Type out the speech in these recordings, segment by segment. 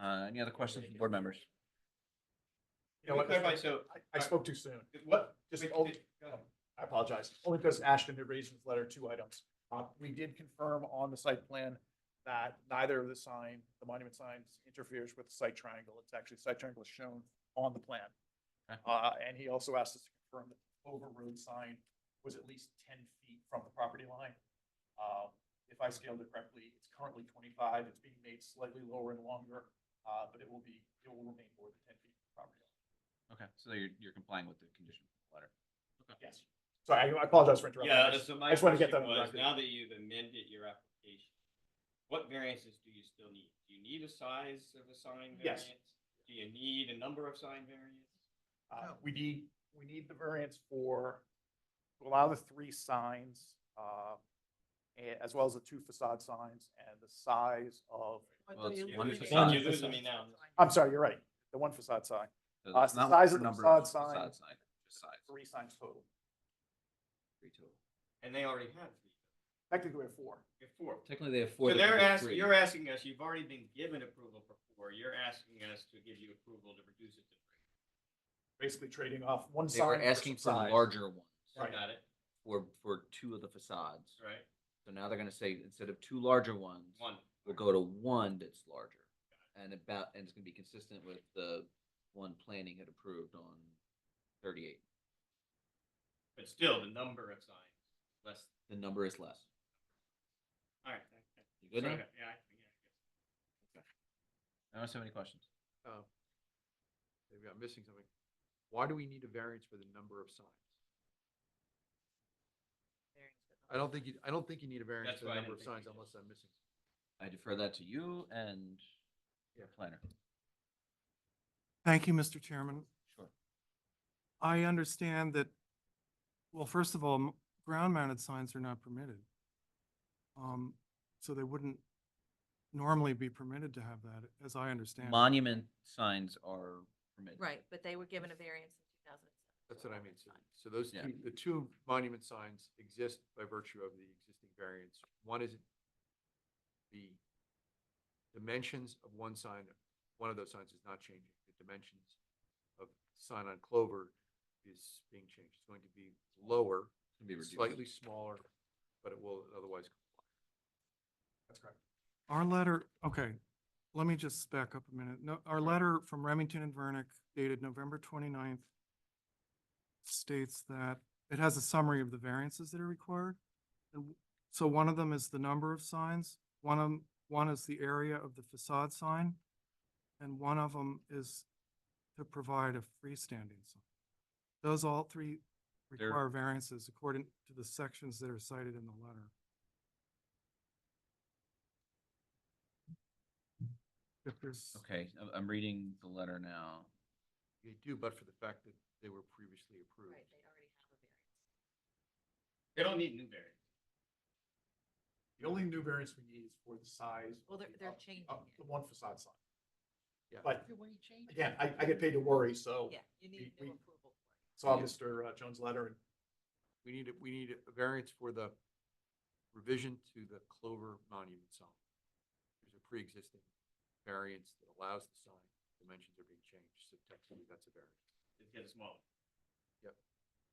Uh, any other questions from board members? You know what, Clarify, so. I spoke too soon. What? Just, Wait, oh, it- go ahead. I apologize, only because Ashton had raised in his letter two items. Uh, we did confirm on the site plan that neither of the sign, the monument signs interferes with the site triangle. It's actually, site triangle is shown on the plan. Okay. Uh, and he also asked us to confirm that the Clover Road sign was at least ten feet from the property line. Um, if I scaled it correctly, it's currently twenty-five, it's being made slightly lower and longer, uh, but it will be, it will remain more than ten feet from the property line. Okay, so you're, you're complying with the condition of the letter. Yes. Sorry, I- I apologize for interrupting. Yeah, so my just wanna get that question on the was, record. now that you've amended your application, what variances do you still need? Do you need a size of a sign Yes. variance? Do you need a number of sign variance? Uh, Oh. We need, we need the variance for, to allow the three signs, uh, a- as well as the two facade signs and the size of, Well, it's You're one losing- facade. You're losing me now. I'm sorry, you're right, the one facade sign, So Uh, it's it's not the size of the number facade it's sign. facade sign, just size. three signs total. Three total. And they already have three, Technically, we have four. you have four. Technically, they have four. So that could they're be asking, three. you're asking us, you've already been given approval for four, you're asking us to give you approval to reduce it to three. Basically trading off one They sign. were asking for size. larger ones Right. Got it, for, for two of the facades. right? So now they're gonna say, instead of two larger ones, One. we'll go to one that's larger. And about, and it's gonna be consistent with the one planning had approved on thirty-eight. But still, the number of signs, less, The number is less. all right. You good now? Okay, Yeah, I- yeah. I don't have any questions. Oh. Maybe I'm missing something. Why do we need a variance for the number of signs? I don't think you, I don't think you need a variance That's for the why I number of didn't think signs you did. unless I'm missing. I defer that to you and your planner. Thank you, Mr. Chairman. Sure. I understand that, well, first of all, m- ground-mounted signs are not permitted. Um, so they wouldn't normally be permitted to have that, as I understand. it. Monument signs are permitted. Right, but they were given a variance in two thousand and seven. That's what I mean. So, so those Yeah. two, the two monument signs exist by virtue of the existing variance. One is the dimensions of one sign, one of those signs is not changing. The dimensions of sign on Clover is being changed. It's going to be lower Can be reduced. slightly smaller, but it will otherwise That's correct. Our letter, okay, let me just back up a minute. No, our letter from Remington and Vernick dated November 29th states that it has a summary of the variances that are required. And So one of them is the number of signs, one of, 'em- one is the area of the facade sign, and one of them is to provide a freestanding sign. Those all three They're- require variances according to the sections that are cited in the letter. If there's, Okay, I'm, I'm reading the letter now. They do, but for the fact that they were previously approved. Right, they already have a variance. They don't need new variants. The only new variance we need is for the size. Well, they're- of the- they're Oh, of the- changing of it. The one facade sign. Yeah. But again, I, I get paid to worry, so Yeah, you need we- new we- approval for it. saw Mr. uh, Jones' letter and We need, a- we need a variance for the revision to the Clover Monument sign. There's a pre-existing variance that allows the sign, dimensions are being changed, so technically that's a variance. It's getting smaller.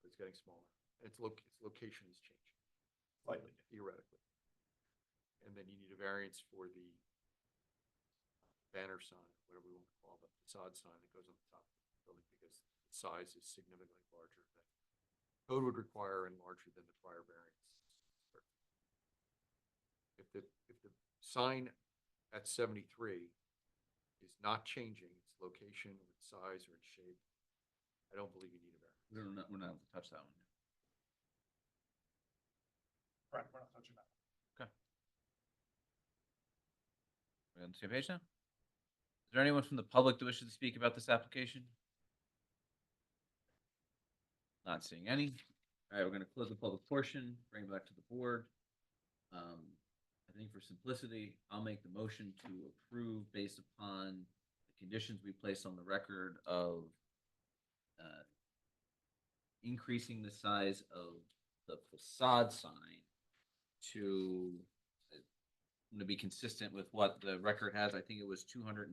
It's getting smaller. Its loc, its location is changing slightly. theoretically. And then you need a variance for the banner sign, whatever we want to call it, the facade sign that goes on the top of the building because the size is significantly larger than code would require and larger than the prior variance. If the, if the sign at seventy-three is not changing its location, or its size, or its shape, I don't believe you need a variance. We're not, we're not able to touch that one. Correct, we're not touching that. We're on the same page now? Is there anyone from the public that wishes to speak about this application? Not seeing any. All right, we're gonna close the public portion, bring it back to the board. Um, I think for simplicity, I'll make the motion to approve based upon the conditions we placed on the record of uh, increasing the size of the facade sign to to be consistent with what the record has, I think it was two hundred and